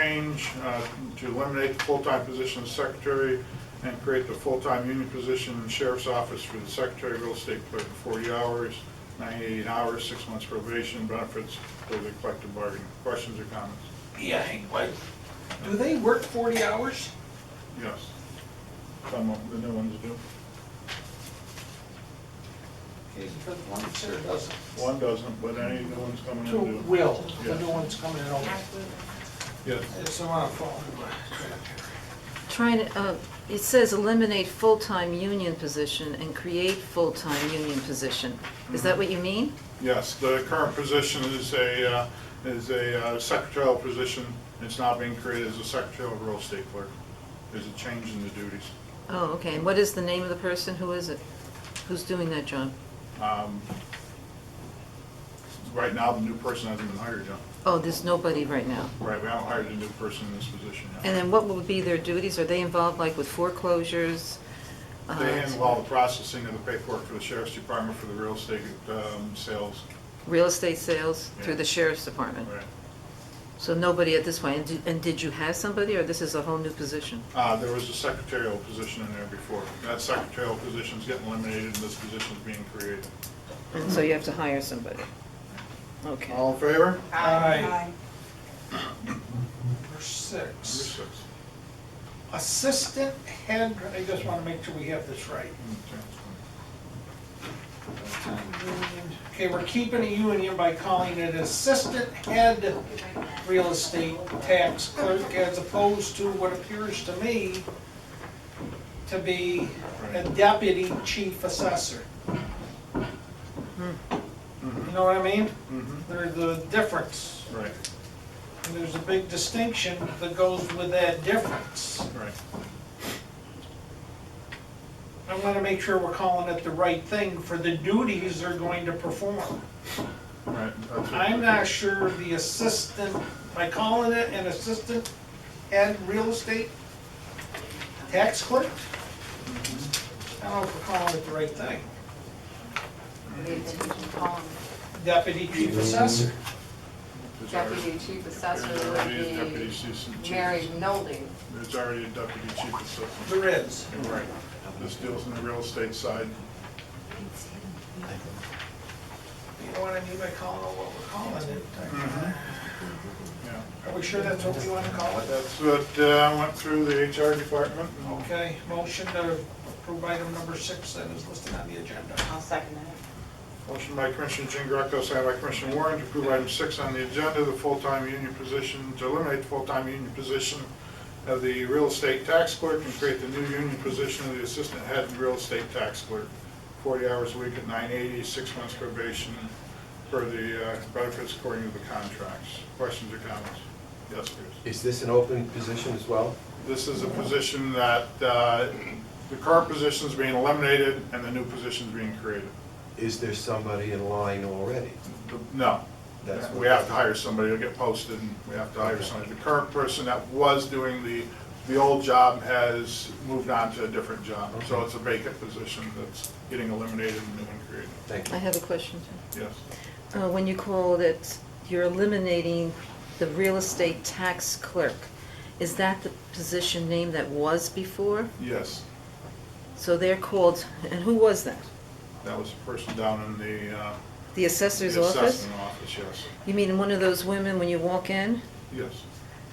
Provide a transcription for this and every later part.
change uh, to eliminate the full-time position of secretary and create the full-time union position in sheriff's office for the secretary, real estate clerk, 40 hours, 98 hours, six months probation, benefits, with the collective bargaining. Questions or comments? Yeah, hang- wait. do they work forty hours? Yes. Some of the new ones do. Is it the one that sure doesn't? One doesn't, but any new ones coming To in do. Will, the new Yes. one's coming in over. Yes. It's the one I'm following. Trying to, uh, it says eliminate full-time union position and create full-time union position. Is that what you mean? Yes, the current position is a, uh, is a uh, secretarial position. It's now being created as a secretarial real estate clerk. There's a change in the duties. Oh, okay, and what is the name of the person? Who is it? Who's doing that job? Um, Right now, the new person hasn't been hired yet. Oh, there's nobody right now. Right, we haven't hired a new person in this position And yet. then what will be their duties? Are they involved like with foreclosures? Uh, They handle all the processing of the paperwork for the sheriff's department for the real estate um, sales. Real estate sales through the Yeah. sheriff's department? Right. So nobody at this point, and do- and did you have somebody, or this is a whole new position? Uh, There was a secretarial position in there before. That secretarial position's getting eliminated and this position's being created. And so you have to hire somebody? Okay. All in favor? Number Aye. Number six, six. assistant head, I just wanna make sure we have this right. Okay, we're keeping a union by calling it assistant head real estate tax clerk as opposed to what appears to me to be a deputy chief assessor. You know what I mean? Mhm, There's a difference, Right, and there's a big distinction that goes with that difference. right. I wanna make sure we're calling it the right thing for the duties they're going to perform. Right. that's it. I'm not sure the assistant, by calling it an assistant and real estate tax clerk? I don't know if we're calling it the right thing. Deputy chief assessor. There's already- Deputy Chief there's Assessor already a would deputy be assistant chief. Mary Nolding. There's already a deputy chief assistant. There is. Right. This deals in the real estate side. You know what I mean by calling it what we're calling it? Yeah. Are we sure that's what we wanna call it? That's what, uh, I went through the HR department. Okay, motion to approve item number six that is listed on the agenda. I'll second that. Motion by Commissioner Jean Greco, second by Commissioner Warren to approve item six on the agenda, the full-time union position, to eliminate the full-time union position of the real estate tax clerk and create the new union position of the assistant head and real estate tax clerk. Forty hours a week at nine eighty, six months probation for the uh, benefits according to the contracts. Questions or comments? Yes, please. Is this an open position as well? This is a position that, uh, the current position's being eliminated and the new position's being created. Is there somebody in line already? The- No. That's what- We have to hire somebody, it'll get posted, and we have to hire somebody. The current person that was doing the, the old job has moved on to a different job. So it's a vacant position that's getting eliminated and new one created. Thank I you. have a question. too. Yes. Uh, When you call it, you're eliminating the real estate tax clerk. Is that the position name that was before? Yes, So they're called, and who was that? that was the person down in the, uh, The the assessor's office? assessment office, yes. You mean one of those women when you walk in, Yes,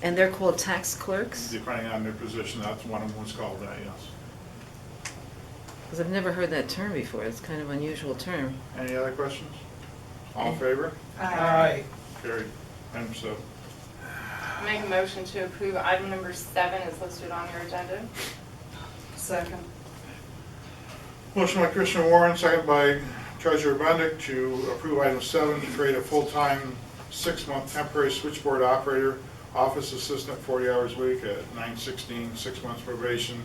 and they're called tax clerks? depending on their position, that's one of them was called that, yes. Because I've never heard that term before, it's kind of unusual term. Any other questions? All in favor? Aye. Carried. Item seven. Make a motion to approve item number seven is listed on your agenda. Second. Motion by Commissioner Warren, second by Treasurer Bendick to approve item seven, to create a full-time, six-month temporary switchboard operator, office assistant, 40 hours a week at 916, six months probation,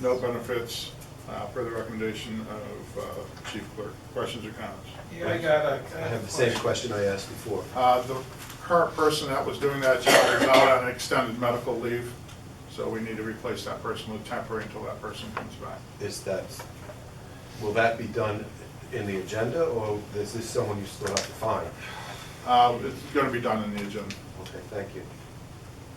no benefits, uh, per the recommendation of uh, Chief Clerk. Questions or comments? Yeah, I got a. I have the same question I asked before. Uh, The current person that was doing that job is out on extended medical leave, so we need to replace that person with temporary until that person comes back. Is that, will that be done in the agenda, or is this someone you still have to find? Uh, It's going to be done in the agenda. Okay, thank you.